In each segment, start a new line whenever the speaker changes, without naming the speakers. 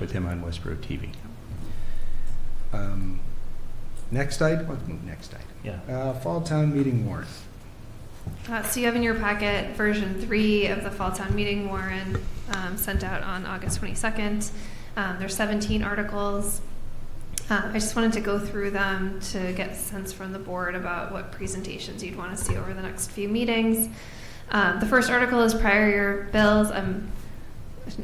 with him on Westboro TV. Um, Next item, what- next item.
Yeah.
Uh, Fall Town Meeting warrant.
Uh, So you have in your packet version three of the Fall Town Meeting warrant um, sent out on August 22nd. Um, There's 17 articles. Uh, I just wanted to go through them to get a sense from the board about what presentations you'd want to see over the next few meetings. Uh, The first article is prior year bills. I'm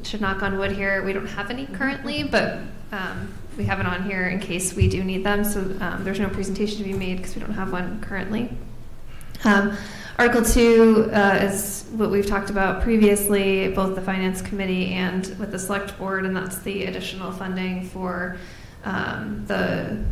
should knock on wood here, we don't have any currently, but um, we have it on here in case we do need them. So um, there's no presentation to be made because we don't have one currently. Um, Article two uh, is what we've talked about previously, both the finance committee and with the select board, and that's the additional funding for um, the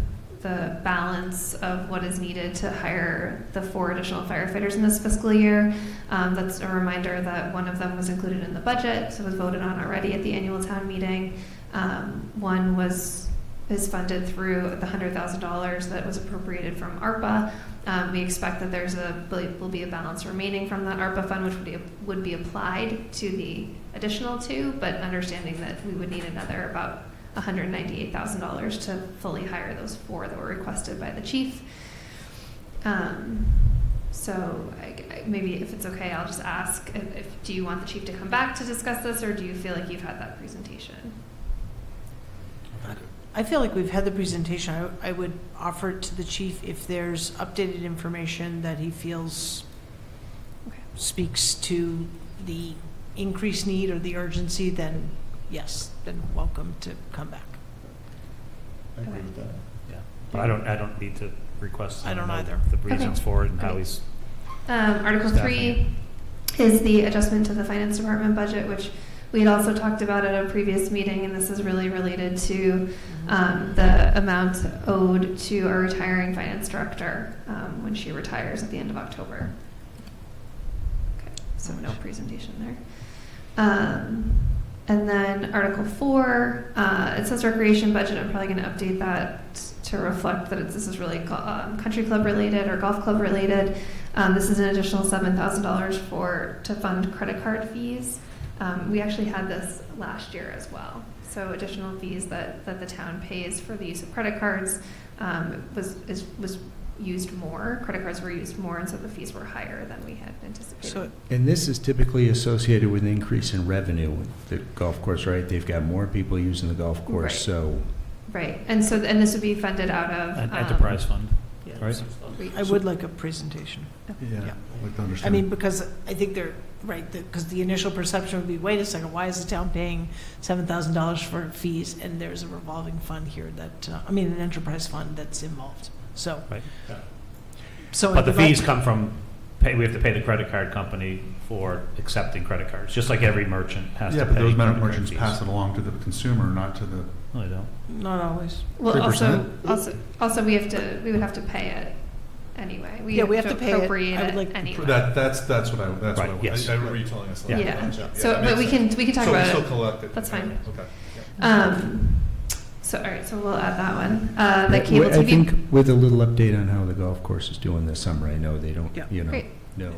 the balance of what is needed to hire the four additional firefighters in this fiscal year. Um, that's a reminder that one of them was included in the budget, so was voted on already at the annual town meeting. Um, one was is funded through the hundred thousand dollars that was appropriated from ARPA. Um, we expect that there's a will be a balance remaining from that ARPA fund, which would be, would be applied to the additional two, but understanding that we would need another about one hundred ninety-eight thousand dollars to fully hire those four that were requested by the chief. Um, so I, I- maybe if it's okay, I'll just ask if, if do you want the chief to come back to discuss this, or do you feel like you've had that presentation?
I feel like we've had the presentation. I, I would offer it to the chief if there's updated information that he feels
Okay.
speaks to the increased need or the urgency, then yes, then welcome to come back.
I agree with that.
Yeah, but I don't, I don't need to request.
I don't
know
either.
The reasons for it and how
Okay.
he's,
Um, Article three
Staffing.
is the adjustment to the finance department budget, which we had also talked about at a previous meeting, and this is really related to um, the amount owed to our retiring finance director um, when she retires at the end of October. Okay, so no presentation there. Um, and then Article Four, uh, it says recreation budget. I'm probably going to update that to reflect that it's, this is really go- um, country club related or golf club related. Um, this is an additional seven thousand dollars for to fund credit card fees. Um, we actually had this last year as well. So additional fees that, that the town pays for the use of credit cards um, was is, was used more. Credit cards were used more, and so the fees were higher than we had anticipated.
So,
And this is typically associated with an increase in revenue with the golf course, right? They've got more people using the golf
Right.
course, so.
Right, and so, and this would be funded out of.
an
um,
enterprise fund,
yeah.
right?
I would like a presentation.
Yeah, I'd like to
I
understand.
mean, because I think they're, right, because the initial perception would be, wait a second, why is the town paying $7,000 for fees? And there's a revolving fund here that, uh, I mean, an enterprise fund that's involved, so.
Right.
So.
But the
I'd like-
fees come from, pay, we have to pay the credit card company for accepting credit cards, just like every merchant has to
Yeah,
pay.
but
credit
those amount of
card
merchants
fees.
pass it along to the consumer, not to the,
No, they don't.
Not always.
Well,
Three
also,
percent?
also, also, we have to, we would have to pay it anyway.
Yeah, we have to pay it.
appropriate
I would like-
anyway.
that, that's, that's what I, that's what I.
Right, yes.
I- I remember you telling us.
Yeah.
that.
Yeah,
that
so, but
makes
we
sense.
can, we can talk
So we
about it.
still collect it?
That's fine.
Okay.
Um, so, all right, so we'll add that one. Uh, the cable
I think
TV.
with a little update on how the golf course is doing this summer, I know they don't,
Yeah.
you know,
Great.
no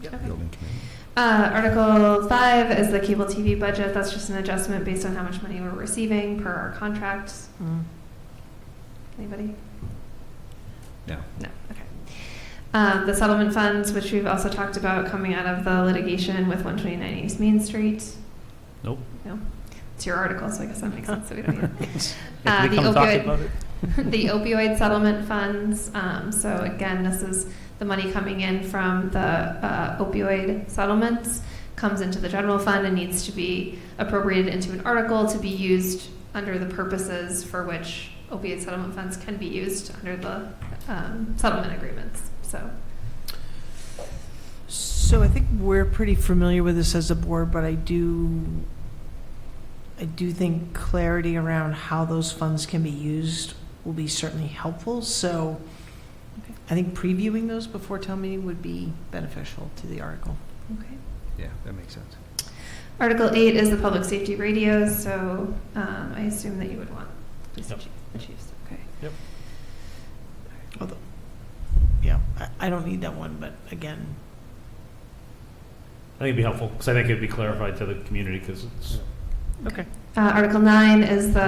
Yeah.
Okay.
building committee.
Uh, Article five is the cable TV budget. That's just an adjustment based on how much money we're receiving per our contract.
Mm.
Anybody?
No.
No, okay. Um, the settlement funds, which we've also talked about coming out of the litigation with 129 East Main Street.
Nope.
No? It's your article, so I guess that makes sense. that we don't need it.
If we
Uh, the
come talk
opioid-
about it,
the opioid settlement funds. Um, so again, this is the money coming in from the uh, opioid settlements comes into the general fund and needs to be appropriated into an article to be used under the purposes for which opioid settlement funds can be used under the um, settlement agreements. So
So I think we're pretty familiar with this as a board, but I do, I do think clarity around how those funds can be used will be certainly helpful. So
Okay.
I think previewing those before town meeting would be beneficial to the article.
okay.
Yeah, that makes sense.
Article eight is the public safety radios. So um, I assume that you would want police
Yep.
chief, the chiefs. Okay.
Although, yeah, I, I don't need that one, but again,
I think it'd be helpful, because I think it'd be clarified to the community, because it's,
okay.
Uh, Article nine is the